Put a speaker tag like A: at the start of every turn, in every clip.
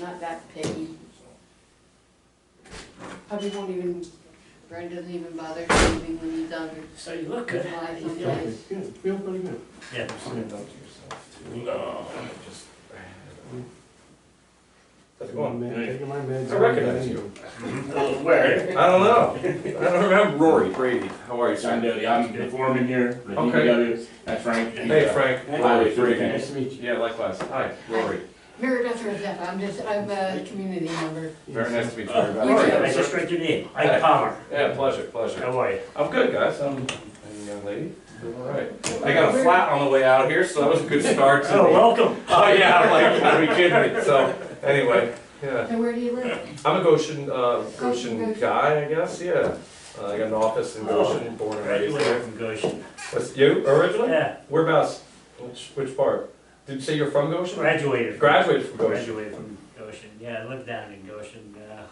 A: not that picky. Probably won't even, Brad doesn't even bother leaving when he's done.
B: So you look good.
A: Why?
B: You feel
A: Yeah.
B: like-
C: Good, good, feel pretty good.
B: Yeah.
C: You've seen it done to yourself too.
B: No.
C: Just.
D: How's it
C: Taking my
D: going?
C: meds, taking my meds.
D: I recognize you.
B: Where?
D: I don't know. I don't remember. Rory Brady, how are you,
E: I'm
D: sir?
E: Billy, I'm the foreman here, the
D: Okay.
E: DPW, that's Frank. and,
D: Hey,
E: uh,
D: Frank.
E: Highway three.
C: Nice to meet you.
D: Yeah, likewise. Hi, Rory.
A: Mary Beth Rosetta, I'm just, I'm a community member.
D: Very nice to meet you.
B: Oh,
E: Uh,
D: Rory.
A: you
D: How are
A: too.
D: you,
B: I just
D: sir?
B: read your name,
D: Hi.
B: Ike Palmer.
D: Yeah, pleasure, pleasure.
B: How are you?
D: I'm good, guys. I'm, and young lady, doing all right. I got a flat on the way out here, so that was a good start to
B: Oh,
D: the.
B: welcome.
D: Oh, yeah, I'm like, are you kidding me? So, anyway, yeah.
A: And where do you live?
D: I'm a Goshen, uh, Goshen
A: Goshen.
D: guy, I guess, yeah. Uh, I got an office in Goshen, born and raised
B: Graduated
D: there.
B: from Goshen.
D: What's, you, originally?
B: Yeah,
D: Whereabouts? Which, which part? Did you say you're from Goshen?
B: graduated. from-
D: Graduated from Goshen.
B: Graduated from Goshen, yeah, I lived down in Goshen. uh,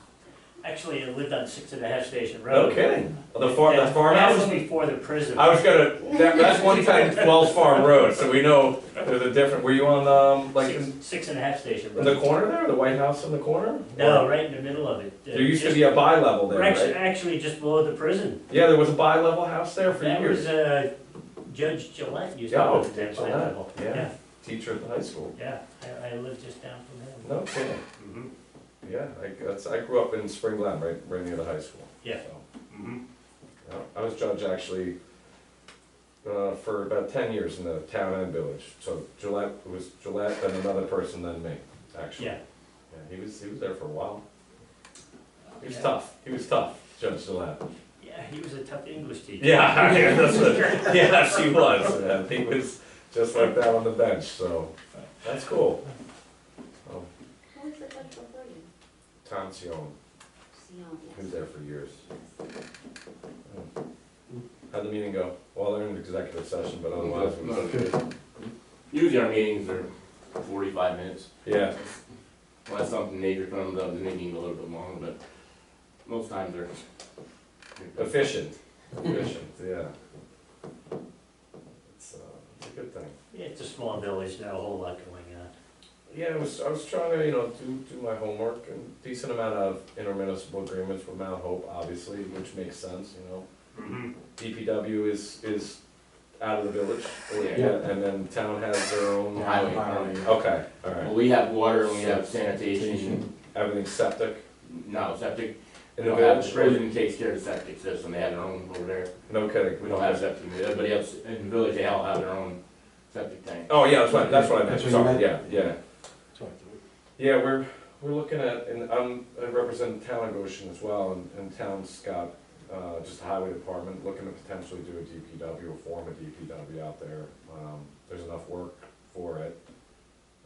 B: Actually, I lived on Six and a Half Station
D: No
B: Road.
D: kidding. The farm,
B: That-
D: the
B: That was
D: farmhouse?
B: before the prison.
D: I was gonna, that, that's one time Wells Farm Road, so we know there's a different, were you on, um, like, in
B: Six- Six and a Half Station
D: in the
B: Road.
D: corner there, the White House in the corner?
B: No, right in the middle of it. Uh,
D: There used to
B: just-
D: be a bi-level there,
B: Actually,
D: right?
B: actually just below the prison.
D: Yeah, there was a bi-level house there for
B: That was
D: years.
B: uh, Judge Gillette used to
D: Yeah,
B: live
D: Judge
B: at that
D: Gillette,
B: level.
D: yeah. Teacher at the high school.
B: Yeah, I- I lived just down from him.
D: No kidding.
B: Mhm.
D: Yeah, I, that's, I grew up in Spring Glen, right, right near the high school.
B: Yeah.
D: So, yeah, I was judge actually, uh, for about ten years in the town and village, so Gillette, it was Gillette, then another person, then me, actually.
B: Yeah.
D: Yeah, he was, he was there for a while, he was
B: Yeah.
D: tough, he was tough, Judge Gillette.
B: Yeah, he was a tough English teacher.
D: Yeah, yeah, that's what, yes, he was, and he was just like that on the bench, so, that's cool. Oh,
A: What was it like before you?
D: Tom Sion,
A: Sion,
D: he was there for years. How'd the meeting go? Well, they're in executive session, but otherwise, it was-
C: Good.
E: Usually our meetings are forty-five minutes,
D: yeah,
E: unless something major comes up, then they need a little bit longer, but most times they're.
D: efficient, efficient, yeah. It's, uh, it's a good thing.
B: It's a small village, not a whole lot going on.
D: Yeah, I was, I was trying to, you know, do, do my homework and decent amount of intermunicipal agreements with Mount Hope, obviously, which makes sense, you know. DPW is, is out of the village, or-
E: Yeah.
D: yeah, and then town has their own.
E: Highway.
D: Okay, all
E: Well,
D: right,
E: we have water and we have sanitation,
D: everything's septic
E: no septic,
D: in
E: we
D: the
E: don't have,
D: village,
E: the
D: or-
E: prison takes care of the septic system, they have their own over there.
D: no kidding.
E: We don't have septic, everybody else in the village, they all have their own septic tank.
D: Oh, yeah, that's what, that's what I meant,
C: That's what you
D: sorry,
C: meant?
D: yeah, yeah. Yeah, we're, we're looking at, and I'm, I represent the town of Goshen as well, and, and town's got, uh, just the highway department, looking to potentially do a DPW, or form a DPW out there. Um, there's enough work for it,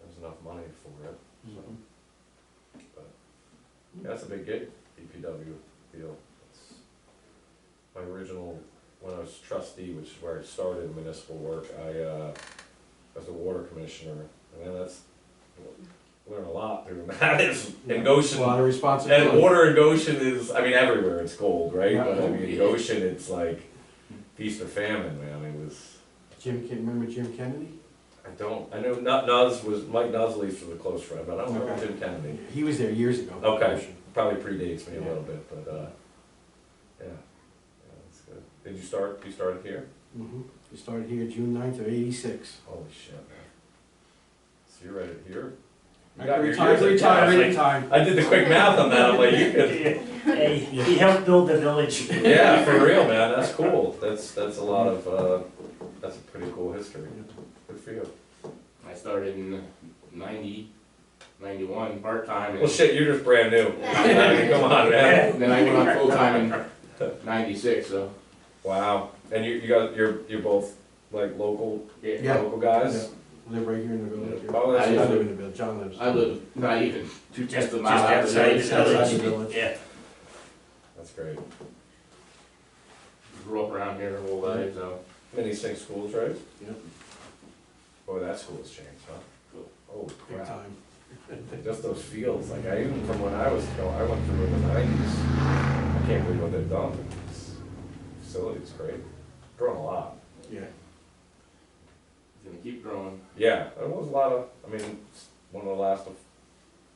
D: there's enough money for it, but, yeah, that's a big gig, DPW deal. It's My original, when I was trustee, which is where I started municipal work, I, uh, was a water commissioner, and then that's, learn a lot doing that, it's, in
C: A
D: Goshen,
C: lot of
D: and
C: responsibility.
D: water in Goshen is, I mean, everywhere it's gold, right?
C: Yeah.
D: But I mean, in Goshen, it's like feast or famine, man. It was.
C: Jim, Ken- remember Jim Kennedy?
D: I don't. I know Nut Nuz was Mike Nuzleaf was a close friend, but I don't remember
C: Okay.
D: Jim Kennedy.
C: He was there years ago.
D: Okay. Probably predates me a
C: Yeah.
D: little bit, but uh, yeah, yeah, that's good. Did you start? You started here?
C: Mhm. He started here June 9th of eighty-six.
D: Holy shit, man! So you're right here. You got your
C: Retired,
D: years in town.
C: retired,
D: I was like-
C: retired.
D: I did the quick math on that. I'm like, you could.
B: Hey, he helped build the village.
D: Yeah, for real, man, that's cool, that's, that's a lot of, uh, that's a pretty cool history, good for you.
E: I started in ninety, ninety-one, part-time. and-
D: Well, shit, you're just brand new, I mean, come on, man.
E: Then I went on full-time in ninety-six, so,
D: Wow, and you, you got, you're, you're both like local,
E: yeah,
C: Yeah.
D: local guys?
C: Live right here in the village.
D: Oh,
C: I
D: that's
E: I-
C: live
D: good.
C: in the village, John lives.
E: I live not even two
B: Just,
E: tenths
B: just
E: of a mile out of
B: outside
E: the
B: the
E: village.
C: Just outside the
B: village.
C: village.
B: Yeah,
D: that's great.
E: Grew up around here the whole life, so.
D: Many same schools, right?
C: Yep.
D: Boy, that school has changed, huh?
E: Cool.
D: Oh
C: Big
D: crap,
C: time.
D: just those fields, like I even from when I was, you know, I went through in the nineties, I can't believe what they've done, This facility's great, grown a lot.
C: Yeah.
E: It's gonna keep growing.
D: Yeah, there was a lot of, I mean, it's one of the last